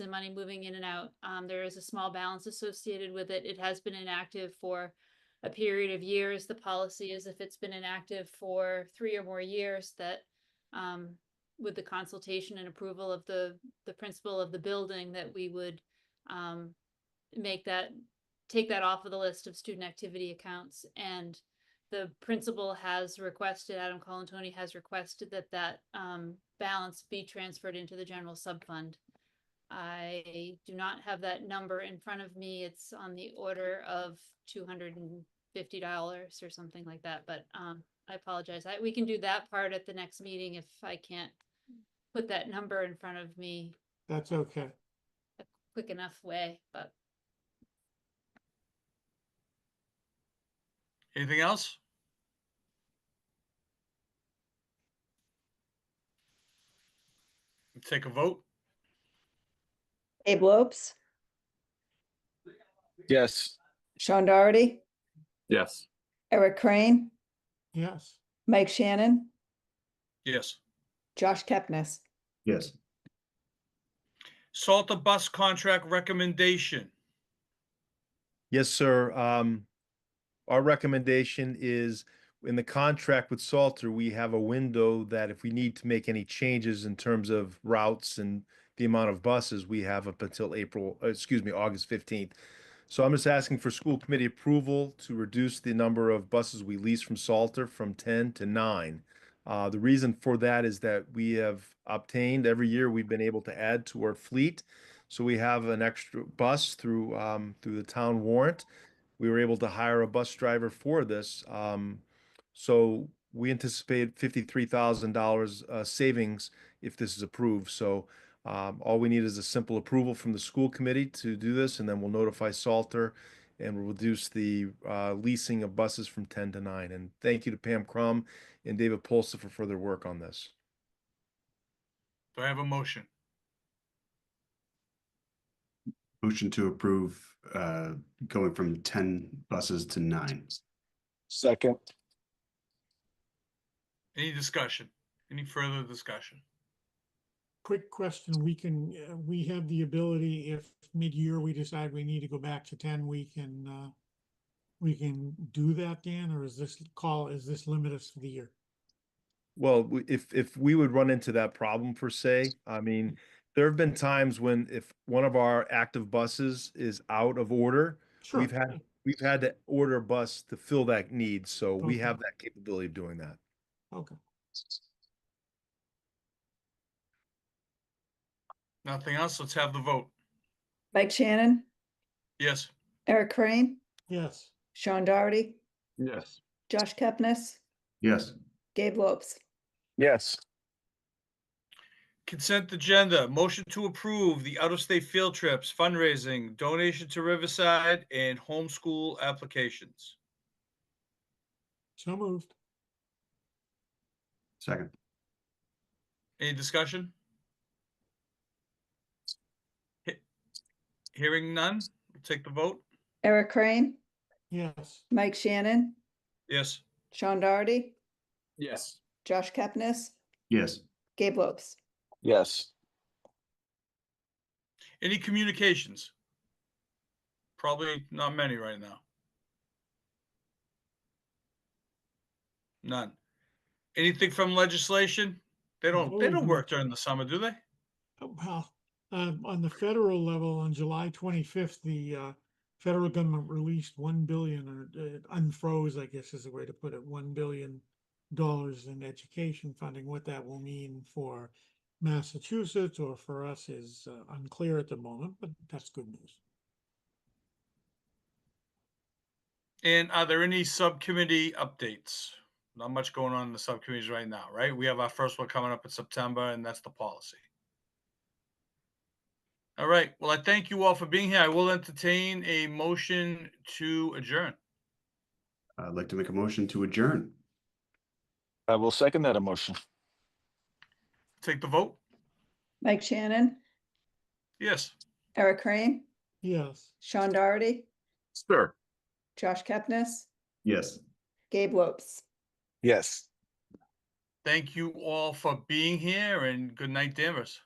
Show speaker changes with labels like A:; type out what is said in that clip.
A: of money moving in and out. Um, there is a small balance associated with it. It has been inactive for a period of years. The policy is if it's been inactive for three or more years that um, with the consultation and approval of the, the principal of the building that we would um, make that, take that off of the list of student activity accounts. And the principal has requested, Adam Colantoni has requested that that um, balance be transferred into the general sub fund. I do not have that number in front of me. It's on the order of two hundred and fifty dollars or something like that, but um, I apologize. I, we can do that part at the next meeting if I can't put that number in front of me
B: That's okay.
A: quick enough way, but
C: Anything else? Take a vote.
D: Abe Lopes,
E: Yes.
D: Sean Doherty,
E: Yes.
D: Eric Crane,
B: Yes,
D: Mike Shannon,
C: Yes.
D: Josh Kepnes.
F: Yes.
C: Salter bus contract recommendation.
F: Yes, sir. Um, our recommendation is in the contract with Salter, we have a window that if we need to make any changes in terms of routes and the amount of buses, we have up until April, uh, excuse me, August fifteenth. So I'm just asking for school committee approval to reduce the number of buses we lease from Salter from ten to nine. Uh, the reason for that is that we have obtained, every year we've been able to add to our fleet. So we have an extra bus through, um, through the town warrant. We were able to hire a bus driver for this. Um, so we anticipate fifty-three thousand dollars, uh, savings if this is approved. So, um, all we need is a simple approval from the school committee to do this, and then we'll notify Salter and we'll reduce the, uh, leasing of buses from ten to nine. And thank you to Pam Crum and David Polsa for further work on this.
C: Do I have a motion?
G: Motion to approve, uh, going from ten buses to nine.
E: Second.
C: Any discussion? Any further discussion?
B: quick question, we can, uh, we have the ability, if mid-year we decide we need to go back to ten, we can, uh, we can do that, Dan, or is this call, is this limit us for the year?
F: Well, w- if, if we would run into that problem per se, I mean, there have been times when if one of our active buses is out of order,
B: Sure.
F: We've had- we've had to order a bus to fill that need, so we
B: Okay.
F: have that capability of doing that.
B: Okay,
C: Nothing else? Let's have the vote.
D: Mike Shannon,
C: Yes.
D: Eric Crane,
B: yes,
D: Sean Doherty,
E: Yes.
D: Josh Kepnes,
G: Yes,
D: Gabe Lopes.
E: Yes.
C: Consent agenda, motion to approve the out-of-state field trips, fundraising, donation to Riverside, and homeschool applications.
B: so moved,
G: second,
C: Any discussion? He- Hearing none, we'll take the vote.
D: Eric Crane,
B: yes,
D: Mike Shannon,
C: Yes.
D: Sean Doherty,
E: Yes.
D: Josh Kepnes,
G: yes,
D: Gabe Lopes.
E: Yes.
C: Any communications? Probably not many right now. None. Anything from legislation? They don't, they
B: No.
C: don't work during the summer, do they?
B: Oh, well, um, on the federal level, on July twenty-fifth, the, uh, federal government released one billion, or uh, unfroze, I guess is the way to put it, one billion dollars in education funding. What that will mean for Massachusetts or for us is uh, unclear at the moment, but that's good news.
C: And are there any subcommittee updates? Not much going on in the subcommittees right now, right? We have our first one coming up in September, and that's the policy. All right, well, I thank you all for being here. I will entertain a motion to adjourn.
G: I'd like to make a motion to adjourn.
E: I will second that emotion.
C: Take the vote?
D: Mike Shannon,
C: Yes.
D: Eric Crane,
B: Yes.
D: Sean Doherty,
E: Sure.
D: Josh Kepnes,
G: Yes.
D: Gabe Lopes.
E: Yes.
C: Thank you all for being here, and good night, Danvers.